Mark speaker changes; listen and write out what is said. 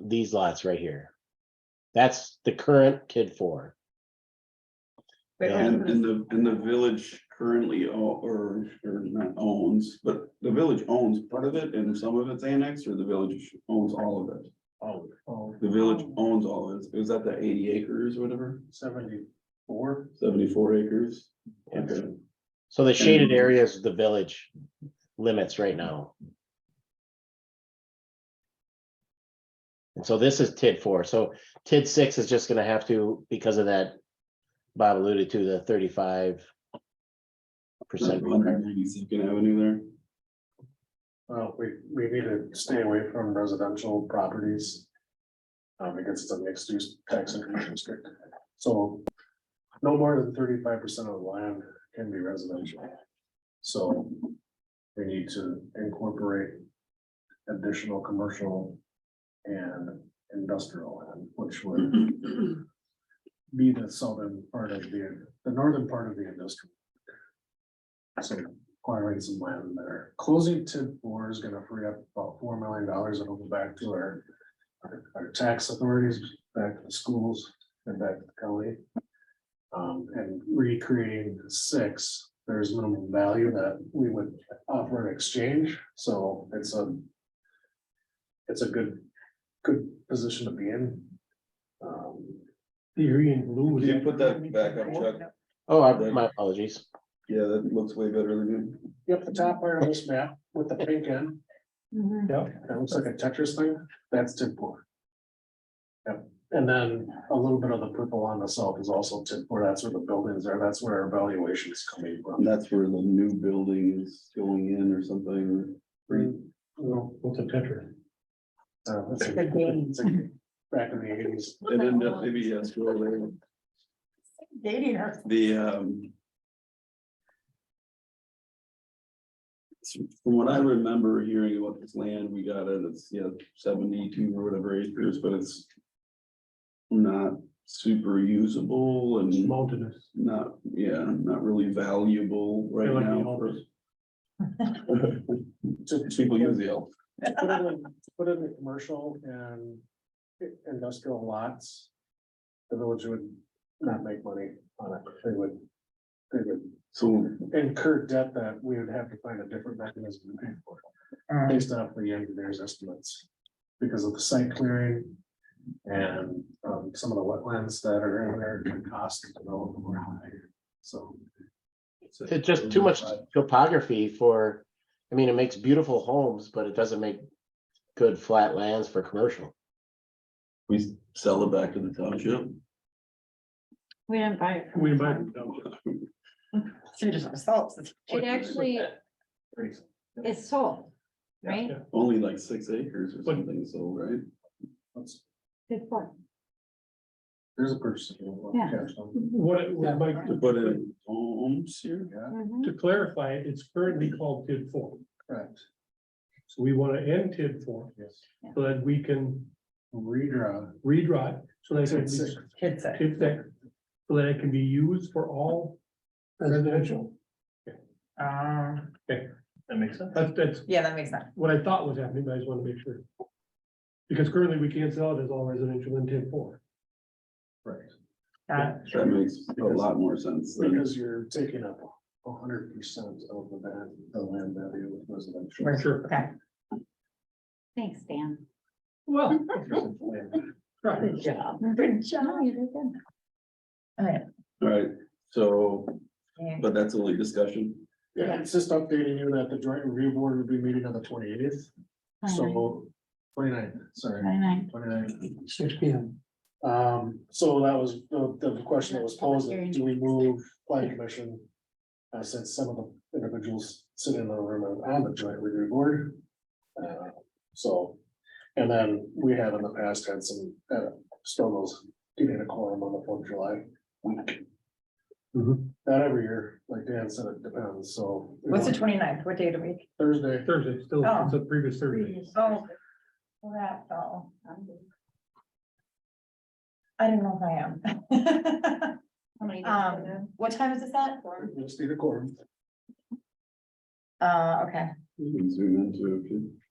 Speaker 1: these lots right here. That's the current KID four.
Speaker 2: But
Speaker 1: Yeah.
Speaker 2: none
Speaker 3: And,
Speaker 2: of
Speaker 3: and
Speaker 2: those-
Speaker 3: the, and the village currently, o- or, or not owns, but the village owns part of it and some of it's annexed, or the village owns all of it?
Speaker 4: Oh, oh,
Speaker 3: The village owns all of it, it was at the eighty acres or whatever,
Speaker 4: seventy-four,
Speaker 3: seventy-four acres?
Speaker 1: Yes.
Speaker 3: Okay.
Speaker 1: So the shaded areas, the village limits right now. And so this is TID four, so TID six is just gonna have to, because of that, Bob alluded to the thirty-five percent.
Speaker 3: Hundred ninety-second Avenue there.
Speaker 4: well, we, we need to stay away from residential properties. uh, because it's a mixed use tax increment district, so. No more than thirty-five percent of the land can be residential. So. We need to incorporate. Additional commercial. And industrial land, which would be the southern part of the, the northern part of the industrial. So acquiring some land there. Closing TID four is gonna free up about four million dollars and go back to our. Our, our tax authorities, back to the schools and back to the county. Um, and recreating six, there's minimum value that we would offer in exchange, so it's a. It's a good, good position to be in. Um,
Speaker 5: Theory and blue.
Speaker 3: Can you put that back up, Chuck?
Speaker 1: Oh, I- my apologies.
Speaker 3: Yeah, that looks way better than
Speaker 4: Yep, the top part of this map with the pink end,
Speaker 2: Mhm.
Speaker 4: that looks like a Tetris thing, that's TID four. Yep, and then a little bit of the purple on the south is also TID four, that's where the buildings are, that's where our valuation is coming
Speaker 3: And
Speaker 4: from.
Speaker 3: that's where the new building is going in or something.
Speaker 4: Well,
Speaker 5: What's a tetra?
Speaker 4: uh, it's a-
Speaker 2: The game.
Speaker 4: it's a- Back in the eighties,
Speaker 3: And then that maybe, yeah, scroll there.
Speaker 2: Dating her.
Speaker 3: The, um. From what I remember hearing about this land, we got it, it's, yeah, seventy-two or whatever acres, but it's. Not super usable and
Speaker 5: Mountainous.
Speaker 3: not, yeah, not really valuable right
Speaker 5: They're like the
Speaker 3: now.
Speaker 5: Alps.
Speaker 3: for- People use the elk.
Speaker 4: put it in, put it in the commercial and i- industrial lots. The village would not make money on it, they would, they would
Speaker 3: So
Speaker 4: incur debt that we would have to find a different mechanism to pay for, it, based off the engineer's estimates. Because of the site clearing and um some of the wetlands that are in there, the cost of development were high, so.
Speaker 1: It's just too much topography for, I mean, it makes beautiful homes, but it doesn't make good flat lands for commercial.
Speaker 3: We sell it back to the township.
Speaker 2: We didn't buy it. from
Speaker 5: We
Speaker 2: the
Speaker 5: invite
Speaker 2: farm.
Speaker 5: them down.
Speaker 2: It actually is sold, right?
Speaker 5: Yeah.
Speaker 3: Only like six acres or
Speaker 5: But-
Speaker 3: something, so, right?
Speaker 4: that's-
Speaker 2: Good point.
Speaker 4: There's a person.
Speaker 2: Yeah.
Speaker 5: What, it would like
Speaker 3: To
Speaker 5: to
Speaker 3: put in homes here.
Speaker 2: Mhm.
Speaker 5: to clarify, it's currently called TID four,
Speaker 4: Correct,
Speaker 5: so we want to end TID four,
Speaker 4: yes,
Speaker 5: so that we can
Speaker 4: redraw.
Speaker 5: redraw it, so that it can
Speaker 4: TID
Speaker 5: be.
Speaker 4: six.
Speaker 5: TID six. so that it can be used for all residential.
Speaker 6: Ah,
Speaker 5: That makes sense. That's, that's
Speaker 6: yeah, that makes sense.
Speaker 5: what I thought was happening, but I just want to make sure. Because currently we can't sell it as all residential in TID four.
Speaker 6: That-
Speaker 3: That makes a lot more sense. than-
Speaker 4: Because you're taking up hundred percent of the van, the land value with residential.
Speaker 6: Right.
Speaker 5: Sure.
Speaker 6: Okay.
Speaker 2: Thanks, Dan.
Speaker 5: Well. Right.
Speaker 6: Good job.
Speaker 2: Good job. You did good.
Speaker 3: All right, so,
Speaker 6: Yeah.
Speaker 3: but that's only discussion.
Speaker 4: Yeah, it's just updating you that the joint review board would be meeting on the twenty eighth, so twenty-nine, sorry,
Speaker 2: Twenty-nine.
Speaker 4: twenty-nine.
Speaker 5: Six P M.
Speaker 4: Um, so that was the, the question that was posed, do we move planning commission? Uh, since some of the individuals sitting in the room are on the joint review board. Uh, so, and then we have in the past had some, uh, struggles getting a quorum on the Fourth of July week.
Speaker 5: Mhm.
Speaker 4: Not every year, like Dan said, it depends, so.
Speaker 6: What's the 29th? what day of the week?
Speaker 4: Thursday,
Speaker 5: Thursday, still, it's the previous Thursday.
Speaker 6: Oh. Well, That, oh. I don't know if I
Speaker 2: How many
Speaker 6: am.
Speaker 2: days do you have?
Speaker 6: Um, what time is this at?
Speaker 4: we just need a quorum.
Speaker 6: Uh, okay,
Speaker 3: We can Zoom into, okay.